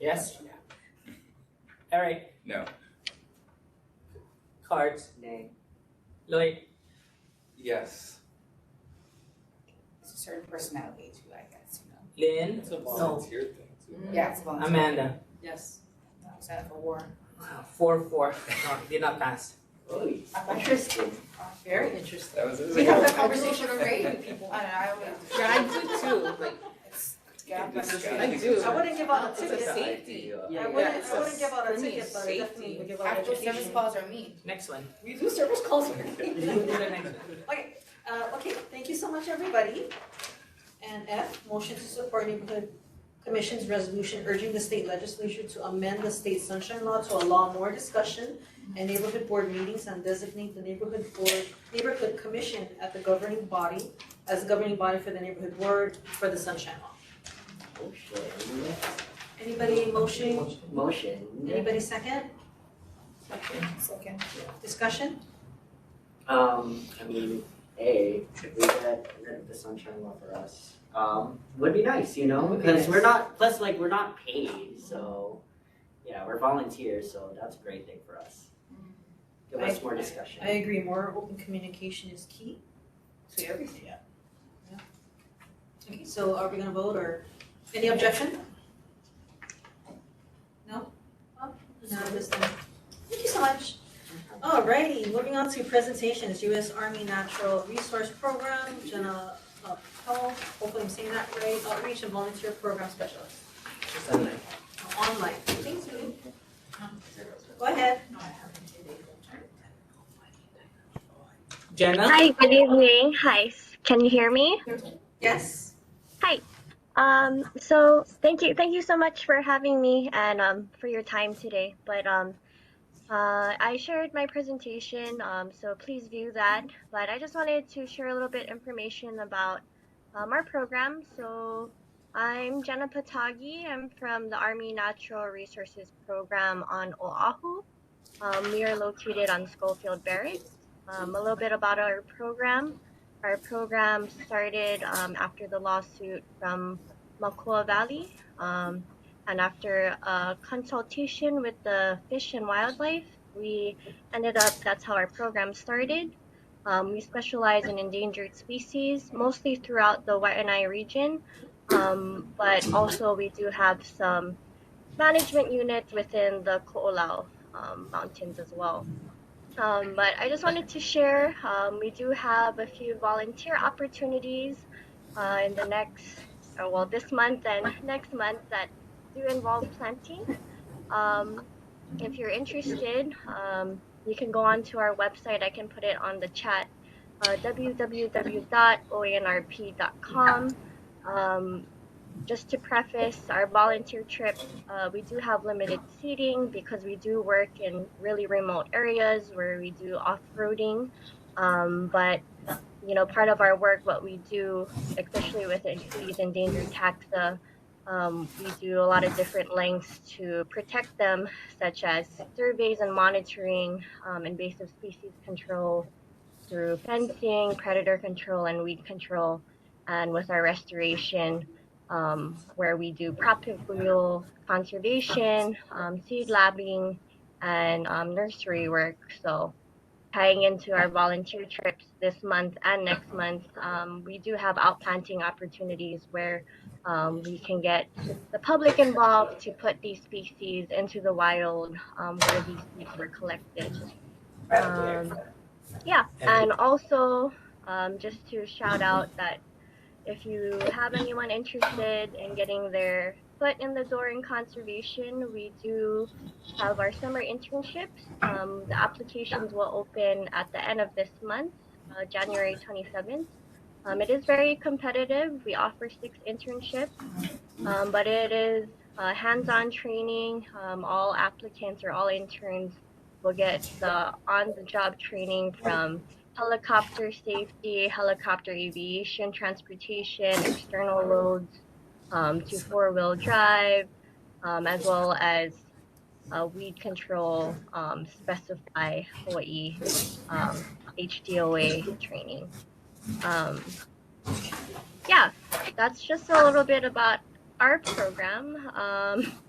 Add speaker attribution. Speaker 1: Yes? All right,
Speaker 2: No.
Speaker 1: cards.
Speaker 3: Nay.
Speaker 1: Lloyd,
Speaker 2: Yes.
Speaker 3: It's a certain personality too, I guess, you know.
Speaker 1: Lynn,
Speaker 2: It's a volunteer thing too.
Speaker 4: Mm-hmm.
Speaker 3: Yeah, it's voluntary.
Speaker 1: Amanda.
Speaker 4: Yes.
Speaker 3: No, it's not for war.
Speaker 1: Wow, Four, four. No, did not pass.
Speaker 4: Interesting. Very interesting.
Speaker 2: That was, it was a
Speaker 3: We have
Speaker 2: good
Speaker 3: that
Speaker 2: one.
Speaker 3: conversation already with people. I don't know, I always.
Speaker 4: Yeah, I do too, like,
Speaker 3: It's- yeah,
Speaker 2: This
Speaker 3: but-
Speaker 2: guy.
Speaker 4: I do.
Speaker 5: I wouldn't give out a
Speaker 4: It's a
Speaker 5: ticket.
Speaker 4: safety.
Speaker 5: I
Speaker 4: Yeah,
Speaker 5: wouldn't, I wouldn't
Speaker 4: yes.
Speaker 5: give out a
Speaker 4: For me,
Speaker 5: ticket, but I definitely
Speaker 4: safety.
Speaker 5: would give out
Speaker 3: After service
Speaker 5: education.
Speaker 3: calls are mean.
Speaker 1: Next one.
Speaker 5: We do service calls.
Speaker 1: Do the next one.
Speaker 5: Uh, okay, thank you so much, everybody. And F, motion to support neighborhood commission's resolution urging the state legislature to amend the state sunshine law to allow more discussion and neighborhood board meetings and designate the neighborhood board, neighborhood commission at the governing body as the governing body for the neighborhood board for the sunshine law. Anybody motion,
Speaker 4: Motion.
Speaker 5: anybody second,
Speaker 3: Second.
Speaker 5: discussion?
Speaker 6: Um, I mean, A, if we get rid of the sunshine law for us, um, would be nice, you know,
Speaker 1: Would be
Speaker 6: because we're
Speaker 1: nice.
Speaker 6: not, plus like, we're not paid, so, yeah, we're volunteers, so that's a great thing for us. Give us more discussion.
Speaker 5: I agree, more open communication is key to everything.
Speaker 6: Yeah.
Speaker 5: Yeah. Okay, so are we gonna vote or, any objection? No? No, this time. Thank you so much. Alrighty, moving on to presentations, US Army Natural Resource Program, Jenna uh, Paul, hopefully I'm saying that right, Outreach and Volunteer Program Specialist,
Speaker 1: Just a line.
Speaker 5: online, thank you. Go ahead.
Speaker 1: Jenna?
Speaker 7: Hi, good evening. Hi, can you hear me?
Speaker 5: Yes?
Speaker 7: Um, so thank you, thank you so much for having me and um, for your time today. But um, uh, I shared my presentation, um, so please view that. But I just wanted to share a little bit information about um, our program. So I'm Jenna Patagi. I'm from the Army Natural Resources Program on Oahu. Um, we are located on Schofield Barracks. Um, a little bit about our program. Our program started um, after the lawsuit from Makua Valley um, and after a consultation with the fish and wildlife, we ended up that's how our program started. Um, we specialize in endangered species mostly throughout the Waianae region, um, but also we do have some management units within the Ko'olau um, mountains as well. Um, but I just wanted to share um, we do have a few volunteer opportunities uh, in the next, uh, well, this month and next month that do involve planting. Um, if you're interested, um, you can go on to our website. I can put it on the chat uh, www.oanrp.com. Um, just to preface our volunteer trip, uh, we do have limited seating because we do work in really remote areas where we do off-roading. Um, but you know, part of our work, what we do, especially with en- these endangered taxa, um, we do a lot of different lengths to protect them, such as surveys and monitoring, um, invasive species control through fencing, predator control, and weed control, and with our restoration um, where we do crop wheel conservation, um, seed labbing, and um, nursery work. So, tying into our volunteer trips this month and next month, um, we do have outplanting opportunities where um, we can get the public involved to put these species into the wild um, where these seeds were collected. Um, yeah, and also um, just to shout out that if you have anyone interested in getting their foot in the door in conservation, we do have our summer internships. Um, the applications will open at the end of this month, uh, January 27th. Um, it is very competitive. We offer six internships, um, but it is uh, hands on training. Um, all applicants or all interns will get the on the job training from helicopter safety, helicopter aviation, transportation, external loads um, to four wheel drive, um, as well as uh, weed control, um, specify Hawaii um, HDOA training. Um, yeah, that's just a little bit about our program. Um,